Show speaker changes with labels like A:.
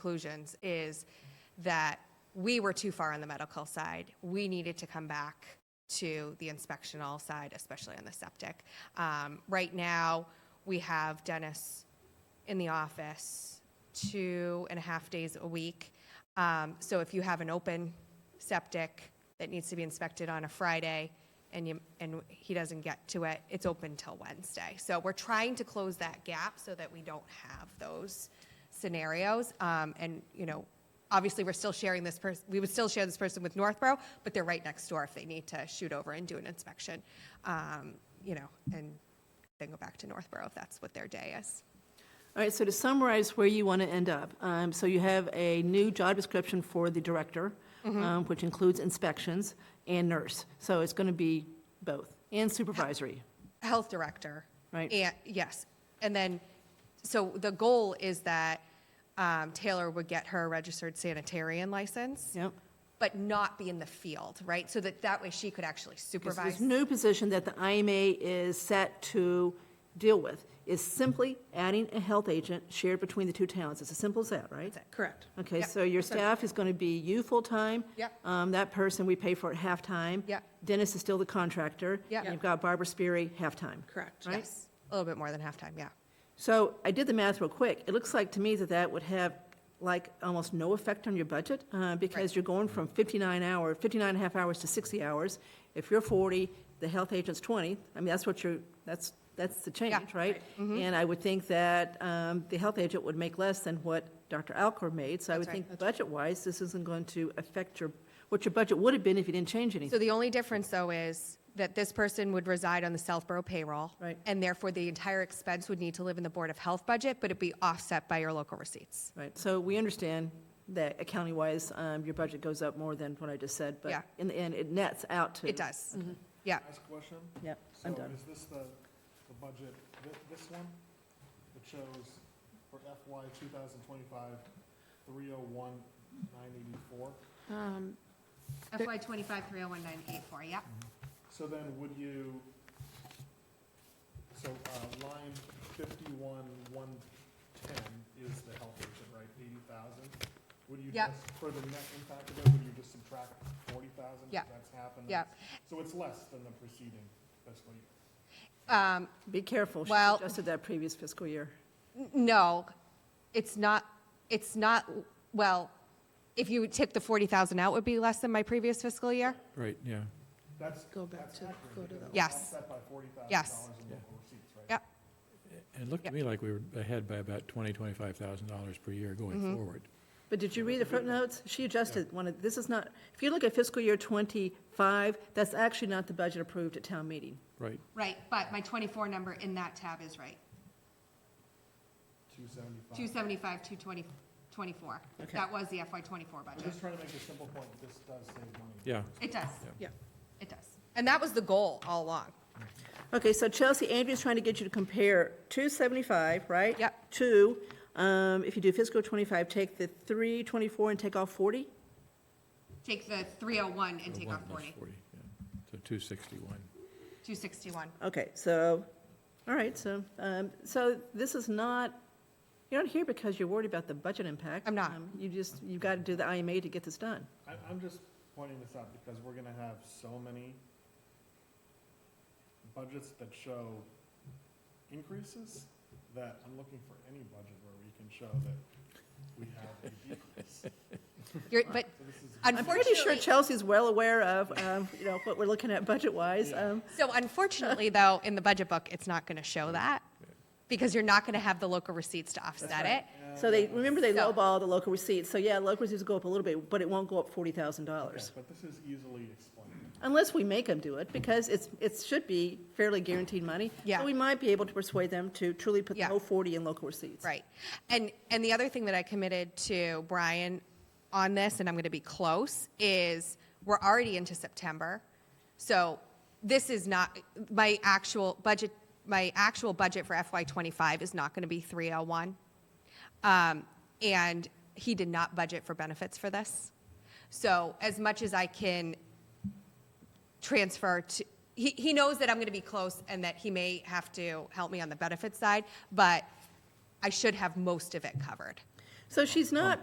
A: conclusions is that we were too far on the medical side. We needed to come back to the inspectional side, especially on the septic. Um, right now, we have Dennis in the office two and a half days a week. Um, so if you have an open septic that needs to be inspected on a Friday and you, and he doesn't get to it, it's open till Wednesday. So we're trying to close that gap so that we don't have those scenarios. Um, and, you know, obviously we're still sharing this person, we would still share this person with Northborough, but they're right next door if they need to shoot over and do an inspection. Um, you know, and then go back to Northborough if that's what their day is.
B: All right, so to summarize where you want to end up, um, so you have a new job description for the director,
A: Mm-hmm.
B: um, which includes inspections and nurse. So it's going to be both, and supervisory.
A: health director.
B: Right.
A: And, yes. And then, so the goal is that um, Taylor would get her registered sanitarian license.
B: Yep.
A: But not be in the field, right? So that that way she could actually
B: Because
A: supervise.
B: This new position that the IMA is set to deal with is simply adding a health agent shared between the two towns. It's as simple as that, right?
A: That's it.
C: Correct.
B: Okay,
A: Yep.
B: so your staff is going to be you full-time.
A: Yep.
B: Um, That person we pay for at half-time.
A: Yep.
B: Dennis is still the contractor.
A: Yep.
B: And You've got Barbara Speary, half-time.
C: Correct.
B: Right?
A: Yes, a little bit more than halftime, yeah.
B: So I did the math real quick. It looks like to me that that would have like almost no effect on your budget uh, because you're going from 59 hour, 59 and a half hours to 60 hours. If you're 40, the health agent's 20. I mean, that's what you're, that's, that's the change, right?
A: Mm-hmm.
B: And I would think that um, the health agent would make less than what Dr. Alcor made. So I would
A: right.
B: think budget-wise, this isn't going to affect your, what your budget would have been if you didn't change anything.
A: So the only difference, though, is that this person would reside on the Southborough payroll.
B: Right.
A: And therefore, the entire expense would need to live in the Board of Health budget, but it'd be offset by your local receipts.
B: Right, so we understand that accounting-wise, um, your budget goes up more than what I just said,
A: Yeah.
B: but in the end, it nets out to.
A: It does,
B: Mm-hmm.
A: yeah.
D: Last question.
B: Yep, I'm
D: So
B: done.
D: is this the, the budget, thi- this one? It shows for FY 2025, 301,984.
A: FY twenty-five, three oh one, nine, eight, four, yep.
D: So then would you, so uh, line 51, 110 is the health agent, right? 80,000? Would you
A: Yep.
D: just, for the net impact of it, would you just subtract 40,000?
A: Yep.
D: That's happened?
A: Yep.
D: So it's less than the preceding fiscal year?
A: Um,
B: Be careful, she
A: Well-
B: adjusted that previous fiscal year.
A: No, it's not, it's not, well, if you took the 40,000 out, it would be less than my previous fiscal year?
E: Right, yeah.
D: That's,
C: Go back
D: that's
C: to-
D: accurate.
C: go to
D: because
C: the-
D: it's
A: Yes.
D: Offset by forty thousand
A: Yes.
D: dollars in local receipts, right?
A: Yep,
E: And it looked to me like we were ahead by about twenty, twenty-five thousand dollars per year
A: Mm-hmm.
E: going forward.
B: But did you read the footnotes? She adjusted one of, this is not, if you look at fiscal year twenty-five, that's actually not the budget approved at town meeting.
E: Right,
A: right, but my 24 number in that tab is right,
D: Two seventy-five.
A: 275, 220, 24.
B: Okay.
A: That was the FY '24
D: I'm
A: budget.
D: just trying to make a simple point, this does save money.
E: yeah.
A: It does,
C: Yeah.
A: it does. And that was the goal all along.
B: Okay, so Chelsea, Andrea's trying to get you to compare two seventy-five, right?
A: Yep.
B: To, um, if you do fiscal twenty-five, take the three twenty-four and take off forty?
A: Take the 301 and
E: so
A: take
E: one
A: off
E: less
A: 40,
E: yeah. So two sixty-one.
A: 261.
B: Okay, so, all right, so, um, so this is not, you're not here because you're worried about the budget impact.
A: I'm not.
B: Um, You just, you've got to do the IMA to get this done.
D: I, I'm just pointing this out because we're gonna have so many budgets that show increases that I'm looking for any budget where we can show that we have a decrease.
A: You're, but
D: So this is,
B: I'm pretty sure
A: unfortunately,
B: Chelsea's well aware of, um, you know, what we're looking at budget-wise. Um,
A: so unfortunately, though, in the budget book, it's not going to show that because you're not going to have the local receipts to offset it.
B: So they, remember they
A: So-
B: lowball the local receipts, so yeah, local receipts will go up a little bit, but it won't go up forty thousand
D: okay,
B: dollars.
D: but this is easily explained.
B: Unless we make them do it, because it's, it should be fairly guaranteed money.
A: Yeah.
B: So we might be able to persuade them to truly put the
A: Yeah.
B: whole forty in local receipts.
A: Right. And and the other thing that I committed to Brian on this and I'm going to be close is we're already into September. So this is not my actual budget my actual budget for FY25 is not going to be 301. Um, and he did not budget for benefits for this. So as much as I can transfer to, he, he knows that I'm going to be close and that he may have to help me on the benefit side, but I should have most of it covered.
B: So she's not